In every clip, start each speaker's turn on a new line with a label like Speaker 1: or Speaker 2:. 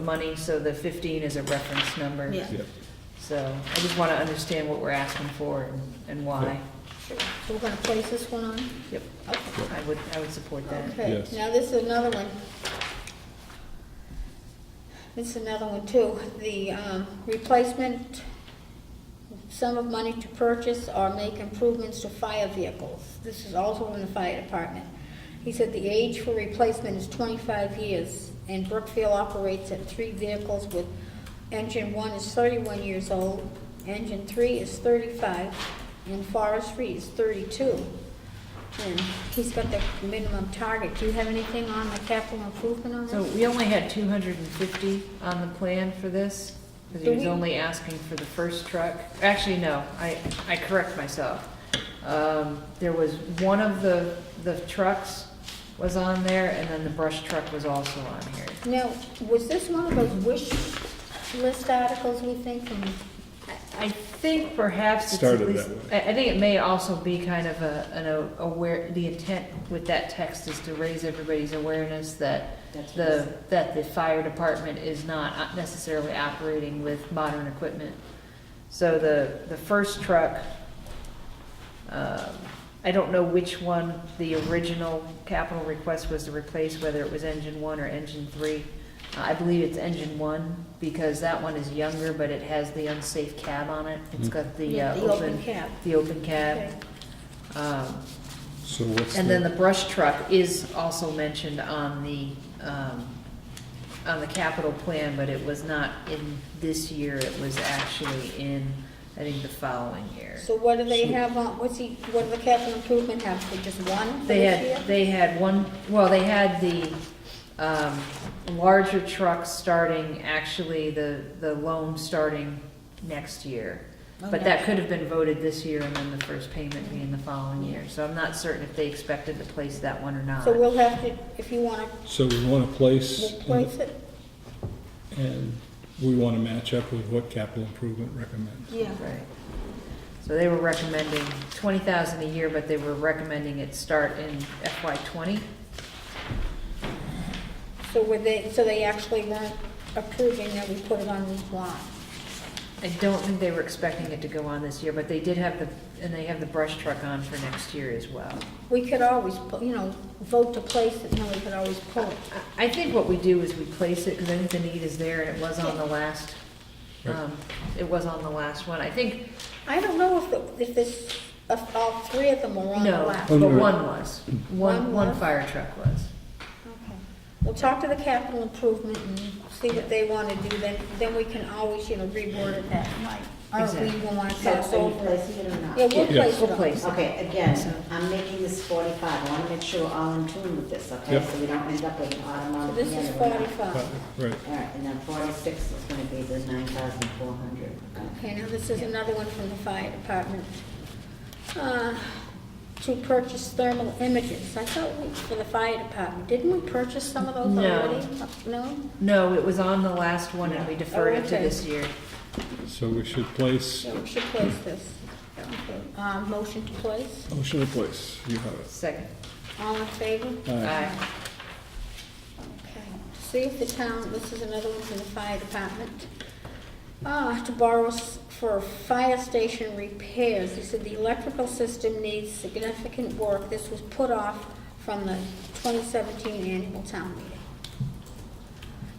Speaker 1: money, so the fifteen is a reference number.
Speaker 2: Yeah.
Speaker 3: Yeah.
Speaker 1: So I just wanna understand what we're asking for and- and why.
Speaker 2: Sure. So we're gonna place this one on?
Speaker 1: Yep,
Speaker 2: Okay.
Speaker 1: I would, I would support that.
Speaker 2: Okay,
Speaker 3: Yes.
Speaker 2: now this is another one. This is another one too, the, um, replacement sum of money to purchase or make improvements to fire vehicles. This is also in the fire department. He said the age for replacement is twenty-five years, and Brookfield operates at three vehicles with, engine one is thirty-one years old, engine three is thirty-five, and forestry is thirty-two. And he's got the minimum target. Do you have anything on the capital improvement on
Speaker 1: So
Speaker 2: this?
Speaker 1: we only had two hundred and fifty on the plan for this, because he
Speaker 2: Do
Speaker 1: was
Speaker 2: we-
Speaker 1: only asking for the first truck. Actually, no, I, I correct myself. Um, there was, one of the, the trucks was on there, and then the brush truck was also on here.
Speaker 2: Now, was this one of those wish list articles we think from,
Speaker 1: I- I think perhaps it's at
Speaker 3: Started
Speaker 1: least,
Speaker 3: that
Speaker 1: I, I think it may also be kind of a, an a- aware, the intent with that text is to raise everybody's awareness that the, that the fire department is not necessarily operating with modern equipment. So the, the first truck, um, I don't know which one the original capital request was to replace, whether it was engine one or engine three. Uh, I believe it's engine one, because that one is younger, but it has the unsafe cab on it. It's got the
Speaker 2: Yeah,
Speaker 1: uh,
Speaker 2: the open
Speaker 1: open,
Speaker 2: cab.
Speaker 1: the open cab.
Speaker 2: Okay.
Speaker 1: Um,
Speaker 3: So what's
Speaker 1: and then the
Speaker 3: the,
Speaker 1: brush truck is also mentioned on the, um, on the capital plan, but it was not in this year, it was actually in, I think, the following year.
Speaker 2: so what do they have on, what's he, what do the capital improvement have, for just one for
Speaker 1: They
Speaker 2: this
Speaker 1: had,
Speaker 2: year?
Speaker 1: they had one, well, they had the, um, larger trucks starting, actually, the, the loan starting next year. But
Speaker 2: Okay.
Speaker 1: that could have been voted this year and then the first payment being the following year, so I'm not certain if they expected to place that one or not.
Speaker 2: So we'll have to, if you wanna,
Speaker 3: so we want to place,
Speaker 2: we'll place it?
Speaker 3: and we want to match up with what capital improvement recommends.
Speaker 2: Yeah.
Speaker 1: Right. So they were recommending twenty thousand a year, but they were recommending it start in FY twenty.
Speaker 2: So were they, so they actually weren't approving that we put it on this line?
Speaker 1: I don't think they were expecting it to go on this year, but they did have the, and they have the brush truck on for next year as well.
Speaker 2: We could always, pu- you know, vote to place it, no, we could always pull it.
Speaker 1: I I think what we do is we place it, because I think the need is there, and it was on the last,
Speaker 3: Right.
Speaker 1: um, it was on the last one. I think,
Speaker 2: I don't know if, the- if this, if all three of them were on the
Speaker 1: no,
Speaker 2: lap.
Speaker 1: but
Speaker 3: Oh, no.
Speaker 1: one was. One,
Speaker 2: One
Speaker 1: one
Speaker 2: was?
Speaker 1: fire truck was.
Speaker 2: Okay. We'll talk to the capital improvement and see what they want to do, then, then we can always, you know, reword it that night. Or if we even want to
Speaker 4: So
Speaker 2: pass
Speaker 4: are you
Speaker 2: over. it.
Speaker 4: placing it or not?
Speaker 2: Yeah, we'll
Speaker 3: Yeah.
Speaker 2: place
Speaker 1: We'll
Speaker 2: it on.
Speaker 1: place it.
Speaker 4: Okay, again, I'm making this forty-five, I wanna make sure we're all in tune with this, okay?
Speaker 3: Yep.
Speaker 4: So we don't end up with an
Speaker 2: So
Speaker 4: automatic.
Speaker 2: this is forty-five.
Speaker 3: Right,
Speaker 4: Alright, and then forty-six is gonna be the nine thousand four hundred.
Speaker 2: Okay, now this is another one from the fire department. Uh, To purchase thermal images. I thought we, for the fire department, didn't we purchase some of those
Speaker 1: No.
Speaker 2: already? No.
Speaker 1: No, it was on the last one, and we deferred it to
Speaker 2: okay.
Speaker 1: this year.
Speaker 3: so we should place,
Speaker 2: Yeah, we should place this. Okay. Uh, motion to place.
Speaker 3: motion to oh, place, you have it.
Speaker 1: Second.
Speaker 2: All in favor?
Speaker 3: Aye.
Speaker 1: Aye.
Speaker 2: Okay, see if the town, this is another one from the fire department. Ah, to borrow s- for fire station repairs, he said the electrical system needs significant work. This was put off from the twenty seventeen annual town meeting.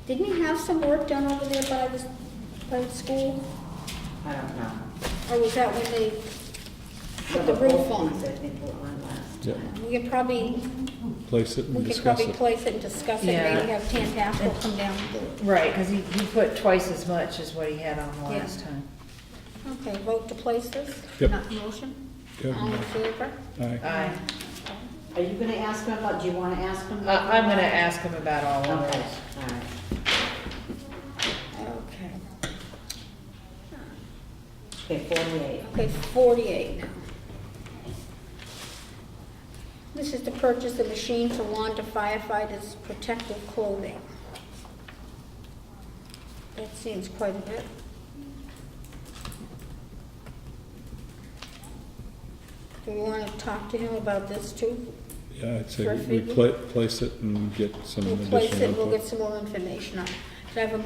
Speaker 2: Didn't he have some work done over there by the, s- by the school?
Speaker 4: I don't know.
Speaker 2: Or was that when they put the
Speaker 4: Well,
Speaker 2: roof
Speaker 4: both
Speaker 2: on?
Speaker 4: these, I think were on last.
Speaker 3: Yeah,
Speaker 2: We could probably,
Speaker 3: place it and
Speaker 2: we could
Speaker 3: discuss
Speaker 2: probably
Speaker 3: it.
Speaker 2: place it and discuss it,
Speaker 1: Yeah.
Speaker 2: maybe have Tan Pascal come down and do it.
Speaker 1: Right, because he, he put twice as much as what he had on the
Speaker 2: Yeah.
Speaker 1: last time.
Speaker 2: Okay, vote to place this?
Speaker 3: Yep.
Speaker 2: Not motion?
Speaker 3: Yep.
Speaker 2: All in favor?
Speaker 3: Aye.
Speaker 1: Aye.
Speaker 4: Are you gonna ask him about, do you wanna ask him?
Speaker 1: Uh,
Speaker 4: about
Speaker 1: I'm gonna
Speaker 4: that?
Speaker 1: ask him about all of
Speaker 4: Okay,
Speaker 1: those.
Speaker 4: alright.
Speaker 2: Okay.
Speaker 4: Okay, forty-eight.
Speaker 2: Okay, forty-eight now. This is to purchase a machine to launder firefighters' protective clothing. That seems quite a bit. Do we want to talk to him about this too?
Speaker 3: Yeah, I'd say
Speaker 2: For
Speaker 3: we
Speaker 2: figure?
Speaker 3: pla- place it and get some
Speaker 2: We'll
Speaker 3: additional
Speaker 2: place it, we'll
Speaker 3: input.
Speaker 2: get some more information on it. Could I have a